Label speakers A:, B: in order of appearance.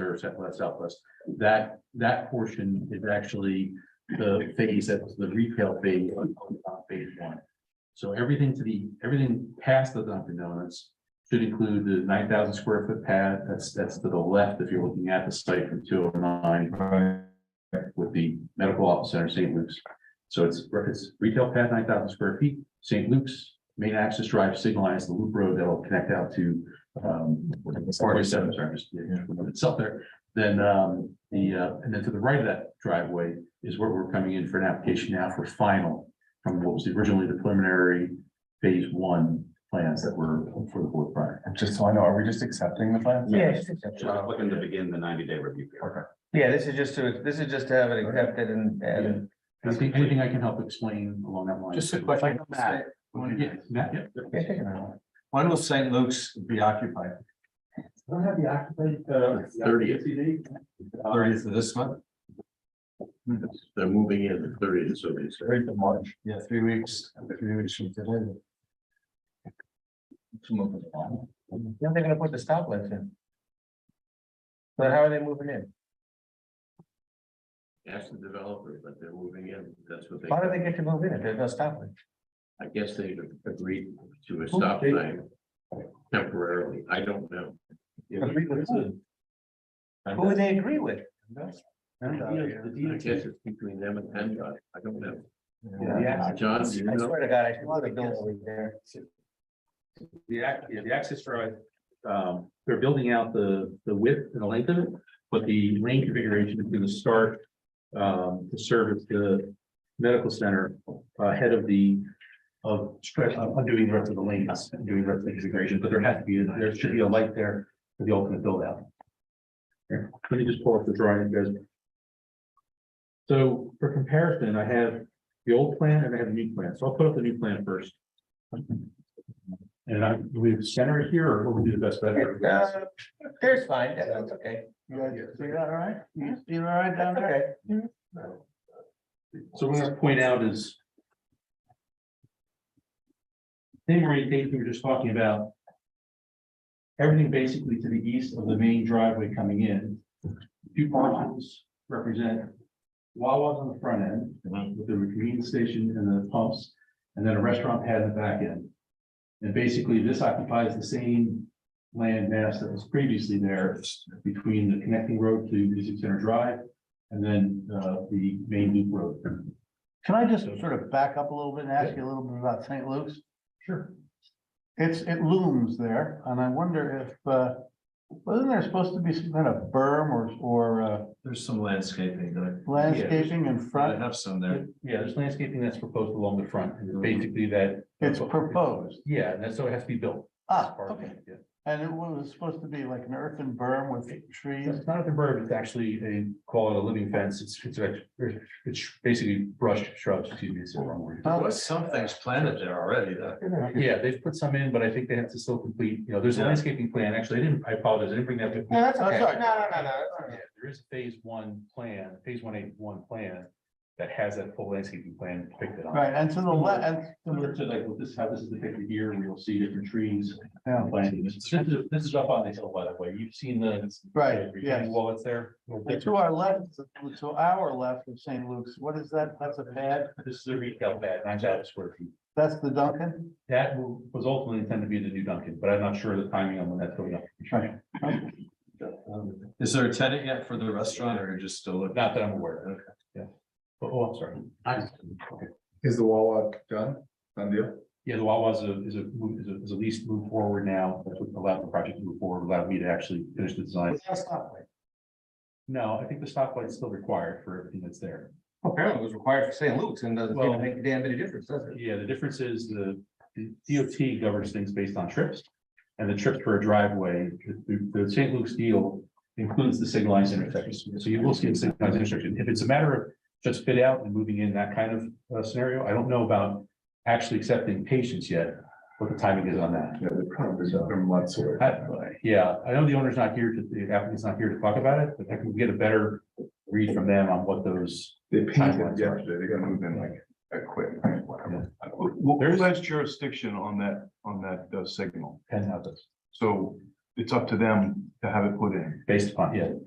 A: or Southwest Southwest. That, that portion is actually the phase that was the retail phase on on top phase one. So everything to the, everything past the Dunkin' Donuts should include the nine thousand square foot pad. That's, that's to the left if you're looking at the site from two oh nine
B: Right,
A: with the medical office center, St. Luke's. So it's, it's retail pad, nine thousand square feet, St. Luke's, main access drive signalized the loop road that'll connect out to um, forty-seven, sorry, just, yeah, it's up there. Then, um, the, uh, and then to the right of that driveway is where we're coming in for an application now for final from what was originally the preliminary phase one plans that were for the board prior.
B: and just so I know, are we just accepting the plan?
C: Yeah, it's just-
D: Just looking to begin the ninety day review period.
C: yeah, this is just to, this is just to have it accepted and, and
A: Anything, anything I can help explain along that line?
B: Just a question.
A: Yeah, Matt, yeah.
B: When will St. Luke's be occupied?
A: Don't have the occupied, uh.
D: Thirtieth,
B: Thirtieth of this month?
D: they're moving in the thirtieth, so they say.
B: Thirtieth of March. Yeah, three weeks, three weeks from today.
C: then they're gonna put the stoplights in. But how are they moving in?
D: Ask the developer, but they're moving in, that's what they.
C: Why do they get to move in if there's no stoplight?
D: I guess they agreed to a stop sign temporarily, I don't know.
C: Who would they agree with?
D: I guess it's between them and PennDOT, I don't know.
C: Yeah.
D: John, do you
C: I
D: know?
C: swear to God, I should want to build over there.
A: The ac- yeah, the access drive, um, they're building out the, the width and the length of it, but the lane configuration is gonna start. Um, to service the medical center ahead of the, of stretch, I'm I'm doing the rest of the lanes, I'm doing the rest of the configuration, but there has to be, there should be a light there for the ultimate build out. Here, Let me just pull up the drawing, guys. So for comparison, I have the old plan and I have the new plan, so I'll put up the new plan first. And I, do we have center it here or what would be the best
C: Uh,
A: bet?
C: There's fine, that- that's okay.
A: So
C: you're all right? You're all right down there?
A: what I'm gonna point out is. Thing or anything we were just talking about. Everything basically to the east of the main driveway coming in. Two parcels represent Wawa's on the front end, with the convenience station and the pumps, and then a restaurant pad in the back end. And basically, this occupies the same land mass that was previously there between the connecting road to Music Center Drive and then uh, the main loop road.
E: Can I just sort of back up a little bit and ask you a little bit about St. Luke's?
A: Sure.
E: It's, it looms there, and I wonder if, uh, wasn't there supposed to be some kind of berm or, or uh,
B: There's some landscaping that
E: landscaping in front?
B: have some there. Mm-hmm.
A: Yeah, there's landscaping that's proposed along the front, and it's basically that.
E: It's proposed,
A: Yeah, and that's, so it has to be built.
E: ah,
A: Part of
E: okay,
A: it, yeah.
E: and it was supposed to be like an earthen berm with trees,
A: It's not a suburb, it's actually a, call it a living fence, it's, it's, a- it's basically brush shrubs, excuse me, it's the wrong word.
E: Oh.
B: was some things planted there already, though.
A: Yeah, they've put some in, but I think they have to still complete, you know, there's a
B: Yeah.
A: landscaping plan, actually, I didn't, I apologize, I didn't bring that. with me.
C: No, that's okay.
E: Oh, That's all right.
C: Oh, No, no, no, no.
A: Yeah, There is a phase one plan, phase one eight one plan that has that full landscaping plan depicted on. it.
E: right, and to the left, and,
A: Similar to like, well, this, is how this is depicted here, where you'll see different trees
E: yeah,
A: and planting. This is, this is up on the hill, by the way. You've seen the.
E: right,
A: retaining
E: yes.
A: Wall that's there.
E: And To our left, to our left of St. Luke's, what is that? That's a pad,
A: This is a retail pad, nine thousand square feet.
E: that's the Duncan?
A: That was ultimately intended to be the new Dunkin', but I'm not sure of the timing on when that's going up. Oh,
B: Is there a tenant yet for the restaurant or just still? looking?
A: Not that I'm aware of, yeah. But, oh, I'm sorry.
F: Is the wall walk done? Done deal?
A: Yeah, the Wawa is a, is a, move- is a, is a lease move forward now. That's what allowed the project to move forward, allowed me to actually finish the design. No, I think the stoplight's still required for everything that's there.
C: Apparently it was required for St. Luke's and doesn't seem to make a damn bit of difference, does it?
A: Yeah, the difference is the DOT governs things based on trips. And the trip for a driveway, the, the St. Luke's deal includes the signalized intersection. So you will see a signalized intersection. If it's a matter of just fit out and moving in that kind of uh, scenario, I don't know about actually accepting patients yet, what the timing is on that.
F: Yeah, the problem is they're months away.
A: I- Yeah, I know the owner's not here, to- the applicant's not here to talk about it, but I can get a better read from them on what those,
F: They painted yesterday, they're gonna move in like a quick, whatever.
A: There's-
G: What last jurisdiction on that, on that uh, signal?
A: depends how those.
G: So
F: it's up to them to have it put in.
B: based upon, yeah,